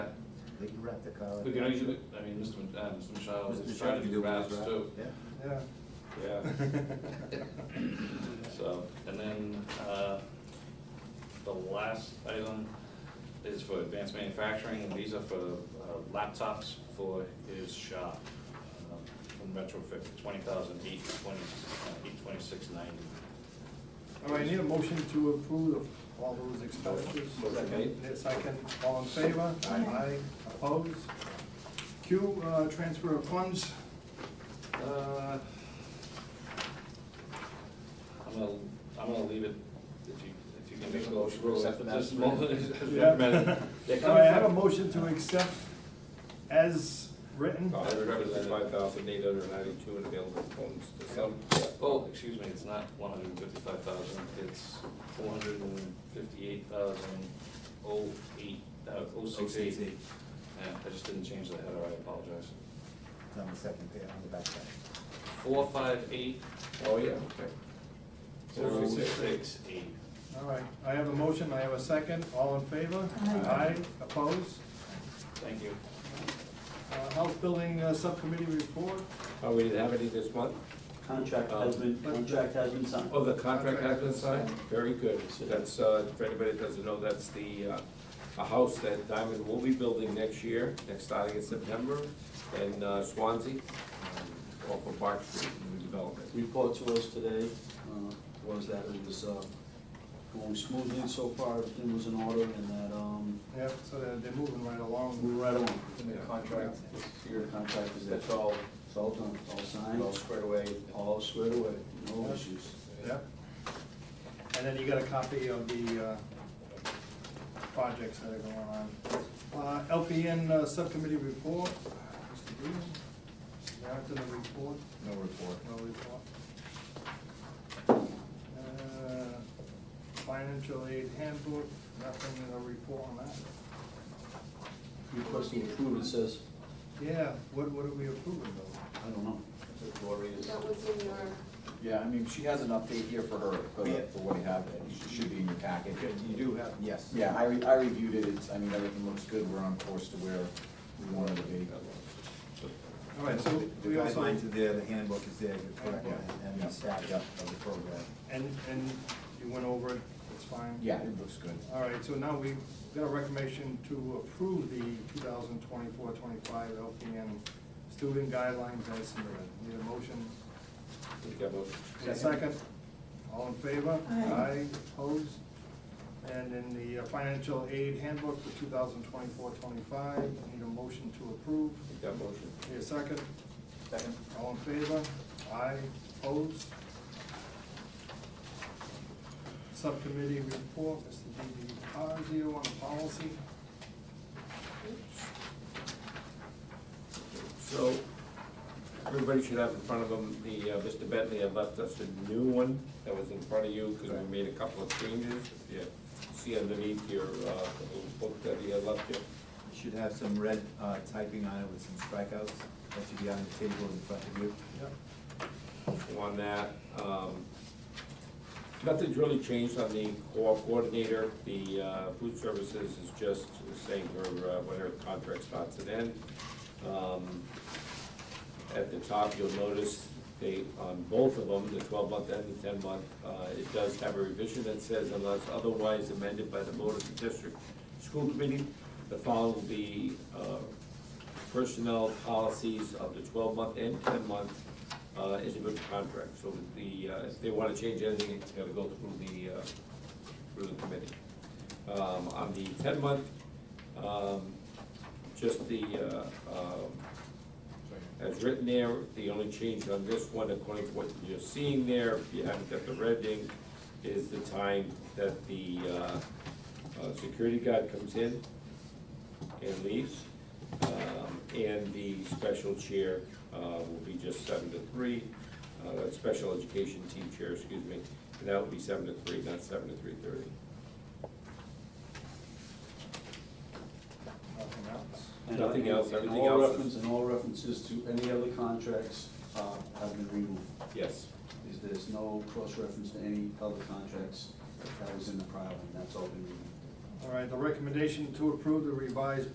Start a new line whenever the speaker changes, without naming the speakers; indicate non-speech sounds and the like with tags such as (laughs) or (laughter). rent the car.
We can always, I mean, Mr. Mc- uh, Mr. Michelle
Mr.
is trying to do
Shaw can
routes
do it,
too.
Yeah.
Yeah.
Yeah. So, and then, uh, the last item is for advanced manufacturing, and these are for uh, laptops for his shop. um, From retrofit, twenty thousand eight twenty, uh, eight twenty-six ninety.
All right, need a motion to approve of all those expenditures.
Motion made.
Yes, Second, all in favor?
Aye.
opposed. Q, uh, transfer of funds.
Uh, I'm gonna, I'm gonna leave it, if you, if you can make a motion.
We'll accept them as
Just mo-
written.
as
Yeah.
recommended. They
(laughs) All
come
right, I have a
from-
motion to accept as written.
I represent five thousand eight hundred ninety-two and available funds to some.
Oh, excuse me, it's not one hundred and fifty-five thousand, it's four hundred and fifty-eight thousand oh eight, uh, oh six eight.
OCC.
Yeah, I just didn't change the header, I apologize.
It's on the second page, on the back page.
Four five eight,
Oh, yeah.
oh six eight.
All right, I have a motion, I have a second, all in favor?
Aye.
opposed.
Thank you.
Uh, House Building uh, Subcommittee report.
Oh, we didn't have any this month?
Contract has been, contract has been signed.
Oh, the contract has been signed? Very good. So That's, uh, for anybody that doesn't know, that's the, uh, a house that Diamond will be building next year, next starting in September, in uh, Swansea, um, off of Bark Street, new development.
Report to us today uh, was that it was uh, going smoothly so far, everything was in order, and that, um,
Yep, so they're, they're moving right
we
along.
were right on.
And the contract,
Your contract is there,
that's all,
it's all done, it's all signed,
all squared away.
all squared away, no issues.
Yep. And then you got a copy of the uh, projects that are going on. Uh, LPN uh, Subcommittee report. Mr. Green, Narrative and report,
No report.
no report. Uh, Financial aid handbook, nothing in the report on that.
Requesting approval, it says,
Yeah, what, what are we approving though?
I don't know.
Glorious.
That was in your,
Yeah, I mean, she has an update here for her, for, the- for what happened, it should be in your packet.
You do have.
Yes, yeah, I, re- I reviewed it, it's, I mean, everything looks good, we're on course to where we wanted to be.
All right, so
The
we also,
guidelines are there, the handbook is there, you're correct,
Yeah.
and the status of the program.
and, and you went over it, it's fine?
Yeah, it looks good.
All right, so now we've got a recommendation to approve the 2024-25 LPN student guidelines as submitted. Need a motion?
Take that motion.
Need a second? All in favor? Aye. opposed? And in the uh, financial aid handbook for 2024-25, need a motion to approve?
Take that motion.
Need a second?
Second?
All in favor? Aye, opposed? Subcommittee report, Mr. D.B. Fazio on policy.
So, everybody should have in front of them, the, uh, Mr. Bentley had left us a new one that was in front of you, because we made a couple of changes. If you see underneath your, uh, the little book that he had left you.
You should have some red uh, typing on it with some strikeouts, that should be on the table in front of you.
Yep.
on that. Um, Nothing's really changed on the co-op coordinator. The uh, food services is just saying her, uh, when her contract starts and ends. Um, At the top, you'll notice they, on both of them, the twelve-month and the ten-month, uh, it does have a revision that says unless otherwise amended by the board of the district school committee, the following will be uh, personnel policies of the twelve-month and ten-month uh, individual contract. So the, uh, if they want to change anything, it's got to go through the, uh, through the committee. Um, On the ten-month, um, just the, uh, um, as written there, the only change on this one, according to what you're seeing there, if you haven't got the red ink, is the time that the uh, uh, security guard comes in and leaves. Um, And the special chair uh, will be just seven to three, uh, that's special education team chair, excuse me, and that will be seven to three, not seven to three thirty.
Nothing else.
And-
Nothing else,
and
everything else
all
is-
reference- And all references to any other contracts uh, have been removed.
Yes.
Is there's no cross-reference to any other contracts that was in the prior one, that's all been removed.
All right, the recommendation to approve the revised